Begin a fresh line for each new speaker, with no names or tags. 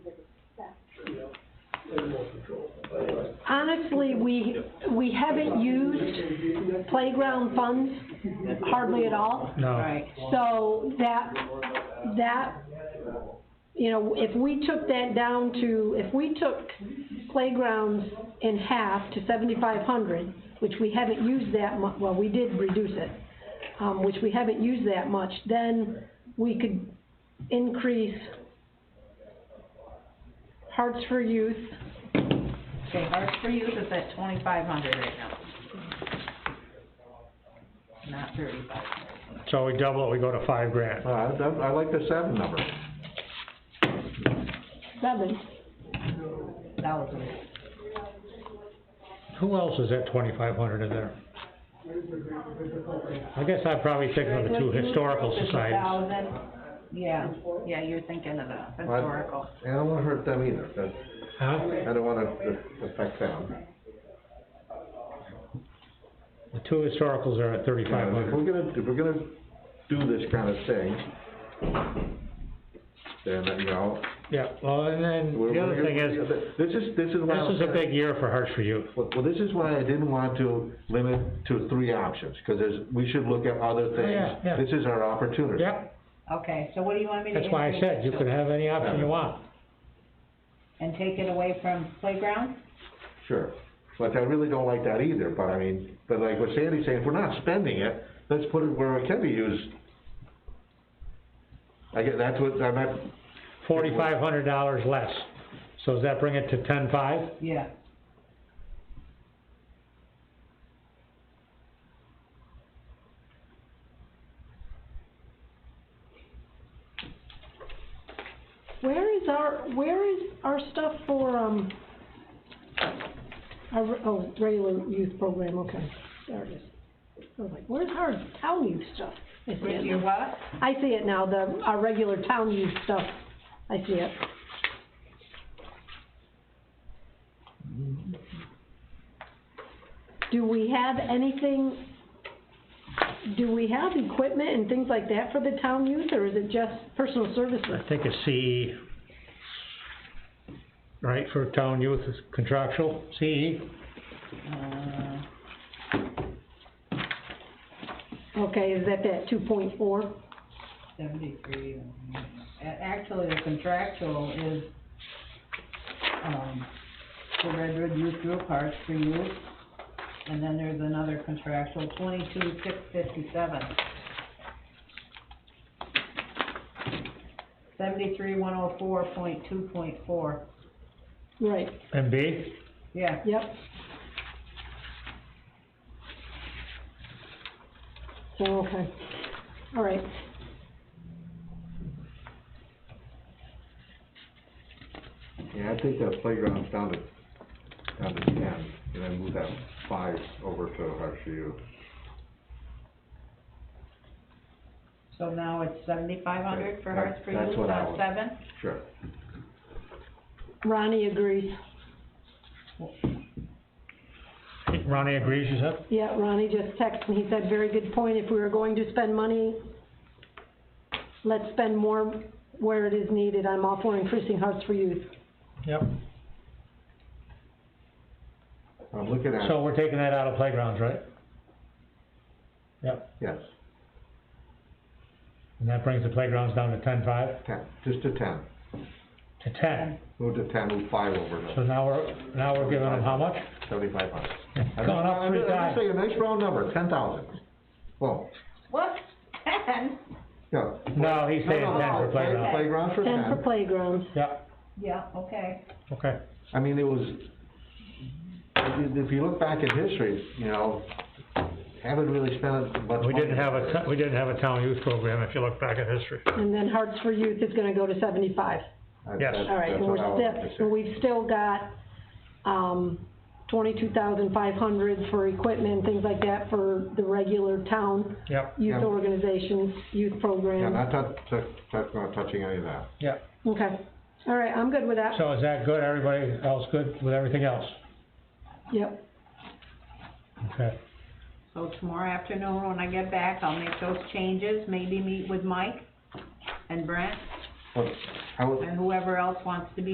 honestly, we, we haven't used playground funds hardly at all.
No,
Right,
So that, that, you know, if we took that down to, if we took playgrounds in half to seventy-five hundred, which we haven't used that mu- well, we did reduce it, um, which we haven't used that much, then we could increase Hearts for Youth,
okay, Hearts for Youth is at twenty-five hundred right now. Not thirty-five.
so we double it, we go to five grand.
Uh, I, I like the seven number.
seven,
Thousand.
Who else is at twenty-five hundred in there? I guess I'd probably think of the two historical societies.
Yeah, yeah, you're thinking of the
What?
historical.
And I don't wanna hurt them either, 'cause
Huh?
I don't wanna a- affect them.
The two historicals are at
You
thirty-five
know, If we're
hundred.
gonna, if we're gonna do this kinda thing, then, you know,
Yeah, well, and then
we're.
the other
we're-
thing is,
This is, this is why.
this
I'm
is a
saying-
big year for Hearts for Youth.
Well, well, this is why I didn't want to limit to three options, 'cause there's, we should look at other
Oh, yeah,
things.
yeah.
This is our opportunity.
Yep,
Okay, so what do you want me to
that's why I
increase
said you
it
could
to?
have any option you want.
And take it away from playground?
Sure, but I really don't like that either, but I mean, but like what Sandy's saying, if we're not spending it, let's put it where it can be used. I get, that's what, I'm not,
Forty-five hundred dollars less. So does that bring it to ten-five?
Yeah.
Where is our, where is our stuff for, um, our, oh, regular youth program, okay, there it is. I was like, where's our town youth stuff? I see
Where's
it
your
now.
what?
I see it now, the, our regular town youth stuff, I see it. Do we have anything, do we have equipment and things like that for the town youth, or is it just personal services?
I think it's CE. Right, for town youth is contractual, E, CE?
Uh,
Okay, is that that two point four?
seventy-three. and- a- Actually, the contractual is, um, the Redwood Youth Group Hearts for Youth. And then there's another contractual, twenty-two, six fifty-seven. Seventy-three, one oh four, point two, point four.
Right,
MB?
Yeah,
yep. So, okay, all right.
yeah, I think that playground's down to, down to ten, and then move that five over to Harshu.
so now it's seventy-five hundred for Hearts for
That's
Youth,
what I
not
was-
seven?
Sure.
Ronnie agrees.
Ronnie agrees, you said?
Yeah, Ronnie just texted me, he said, very good point, if we were going to spend money, let's spend more where it is needed, I'm all for increasing Hearts for Youth.
Yep.
I'm looking at,
So we're taking that out of playgrounds, right? Yep,
yes,
and that brings the playgrounds down to ten-five,
ten, just to ten,
to ten.
move to ten, move five over
So
to
now we're, now we're giving them how much?
seventy-five hundred.
Going up three
I'm just
times.
saying, nice round number, ten thousand. Well,
What? Ten?
yeah.
No, he's saying ten for
Play-
playgrounds.
Playground for
Ten for playgrounds,
Yep,
Yeah, okay.
okay.
I mean, it was, if if you look back at history, you know, haven't really spent much money.
We didn't have a, to- we didn't have a town youth program, if you look back at history.
and then Hearts for Youth is gonna go to seventy-five.
That-
Yes.
that's-
All right,
that's
and
what I
we're
was
still,
gonna say.
we've still got, um, twenty-two thousand five hundred for equipment, things like that for the regular town
Yep,
youth
Yeah.
organizations, youth
Yeah,
programs.
not touch, touch, touch- not touching any of that.
yep.
Okay, all right, I'm good with that,
So is that good? Everybody else good with everything else?
yep.
Okay.
So tomorrow afternoon, when I get back, I'll make those changes, maybe meet with Mike and Brent
But I would,
and whoever else wants to be